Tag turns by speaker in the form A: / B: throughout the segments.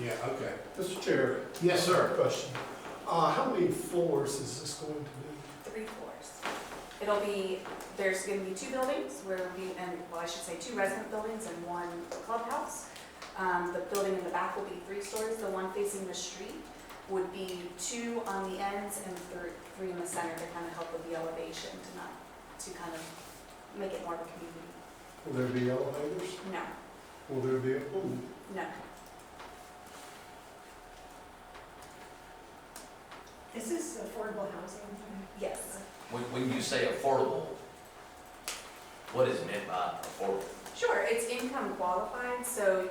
A: Yeah, okay.
B: Mr. Chair,
A: Yes,
B: I have
A: sir.
B: a question. Uh, how many floors is this going to be?
C: three floors. It'll be, there's gonna be two buildings where we, and, well, I should say, two resident buildings and one clubhouse. Um, the building in the back will be three stories, the one facing the street would be two on the ends and three, three in the center to kind of help with the elevation to not, to kind of make it more of a community.
B: Will there be elevators?
C: No,
B: Will there be a pool?
C: no,
D: This is affordable housing.
C: yes.
E: When, when you say affordable, what is meant by affordable?
C: Sure, it's income qualified, so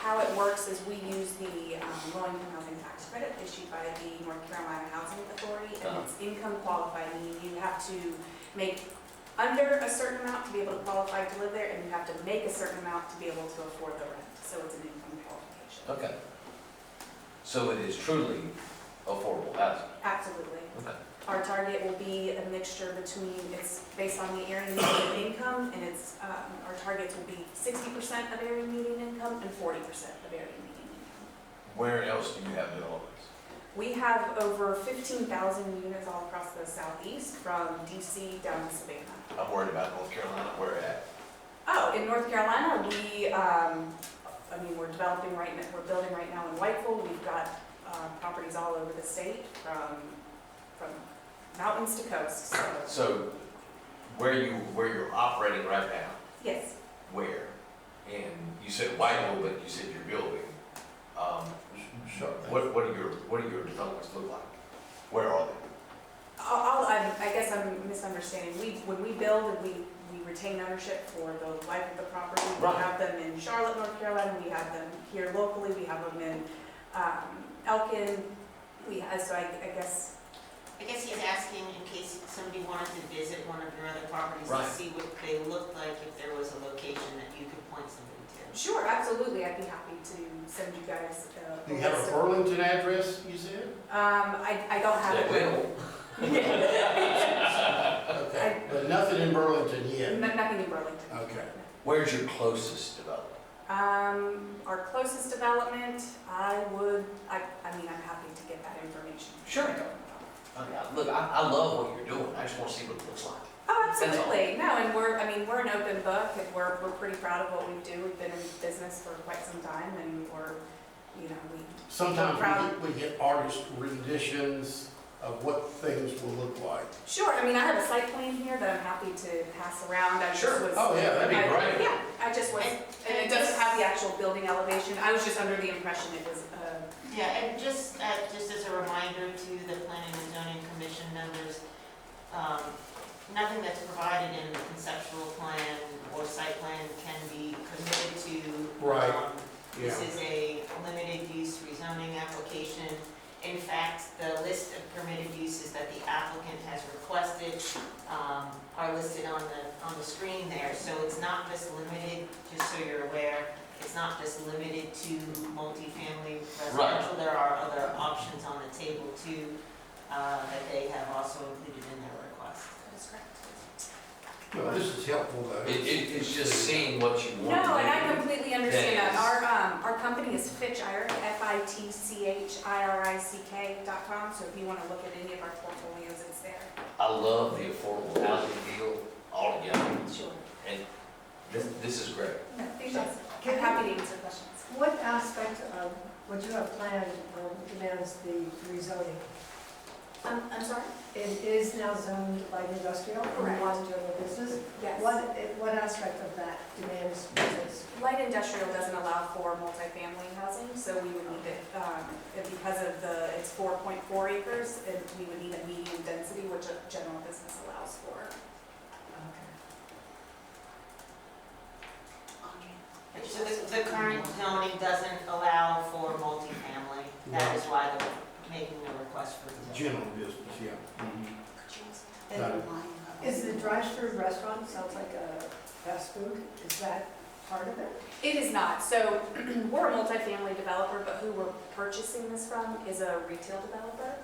C: how it works is we use the um, low income housing tax credit issued by the North Carolina Housing Authority, and it's income qualified, meaning you have to make under a certain amount to be able to qualify to live there, and you have to make a certain amount to be able to afford the rent, so it's an income qualification.
E: Okay. So it is truly affordable housing?
C: Absolutely.
E: Okay.
C: Our target will be a mixture between, it's based on the area median income, and it's, um, our targets will be sixty percent of area median income and forty percent of area median income.
E: Where else do you have developments?
C: We have over fifteen thousand units all across the southeast, from DC down to Savannah.
E: I'm worried about North Carolina, where at?
C: Oh, in North Carolina, we, um, I mean, we're developing right now, we're building right now in Whiteville. We've got, uh, properties all over the state, from, from mountains to coasts, so,
E: So where you, where you're operating right now,
C: yes.
E: where? And you said Whitehall, but you said you're building. Um,
A: Sure.
E: what, what are your, what are your developments look like? Where are they?
C: I'll, I'll- I'm- I guess I'm misunderstanding. We, when we build and we, we retain ownership for the life of the property, we
E: Right.
C: have them in Charlotte, North Carolina, we have them here locally, we have them in um, Elkin. We, uh, so I I guess,
F: I guess he's asking in case somebody wanted to visit one of your other properties
E: Right.
F: to see what they looked like, if there was a location that you could point somebody to.
C: sure, absolutely, I'd be happy to send you guys uh,
A: Do
C: a
A: you have
C: list
A: a
C: of.
A: Burlington address, you said?
C: Um, I, I don't have.
E: They
C: it.
E: will.
A: Okay, but nothing in Burlington
C: No-
A: yet.
C: Nothing in Burlington.
A: Okay.
E: Where's your closest development?
C: Um, our closest development, I would, I, I mean, I'm happy to get that information.
E: Sure. I mean, I- Look, I, I love what you're doing. I just want to see what it looks like.
C: Oh,
E: That's all.
C: absolutely. No, and we're, I mean, we're an open book, and we're, we're pretty proud of what we do. We've been in business for quite some time, and we're, you know, we,
A: Sometimes we get- we get artist renditions of what things will look like.
C: sure, I mean, I have a site plan here that I'm happy to pass around. I just
E: Sure.
C: was-
A: Oh, yeah, that'd be
C: I-
E: great.
C: Yeah, I just was,
F: And-
C: and it
F: and
C: doesn't
F: just-
C: have the actual building elevation. I was just under the impression it was, uh,
F: Yeah, and just, uh, just as a reminder to the planning and zoning commission members, um, nothing that's provided in the conceptual plan or site plan can be committed to.
A: Right.
F: um,
A: Yeah.
F: This is a limited use rezoning application. In fact, the list of permitted uses that the applicant has requested um, are listed on the, on the screen there. So it's not just limited, just so you're aware, it's not just limited to multifamily residential. There are other options on the table too, uh, that they have also included in their request.
C: that's correct.
A: No, this is helpful, though.
E: It, it, it's just seeing what you
C: No,
E: want. to
C: and
E: do.
C: I completely understand that.
E: Yes.
C: Our, um, our company is Fitchiric, F-I-T-C-H-I-R-I-C-K dot com, so if you want to look at any of our portfolios, it's there.
E: I love the affordable housing deal altogether,
C: Sure.
E: and this, this is great.
C: I'm happy to answer questions.
D: What aspect of, what you have planned um, demands the rezoning?
C: Um, I'm sorry?
D: It is now zoned light industrial,
C: Correct.
D: from one general business.
C: Yes.
D: What, what aspect of that demands business?
C: Light industrial doesn't allow for multifamily housing, so we would need it, um, and because of the, it's four point four acres, and we would need a medium density, which a general business allows for.
F: So the, the current zoning doesn't allow for multifamily. That is why they're making the request for the.
A: General business, yeah. Mhm. Got it.
D: Is the drive-through restaurant, sounds like a fast food, is that part of it?
C: It is not. So we're a multifamily developer, but who we're purchasing this from is a retail developer.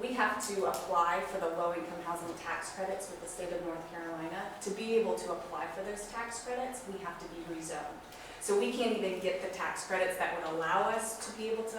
C: We have to apply for the low-income housing tax credits with the state of North Carolina. To be able to apply for those tax credits, we have to be rezoned. So we can't even get the tax credits that would allow us to be able to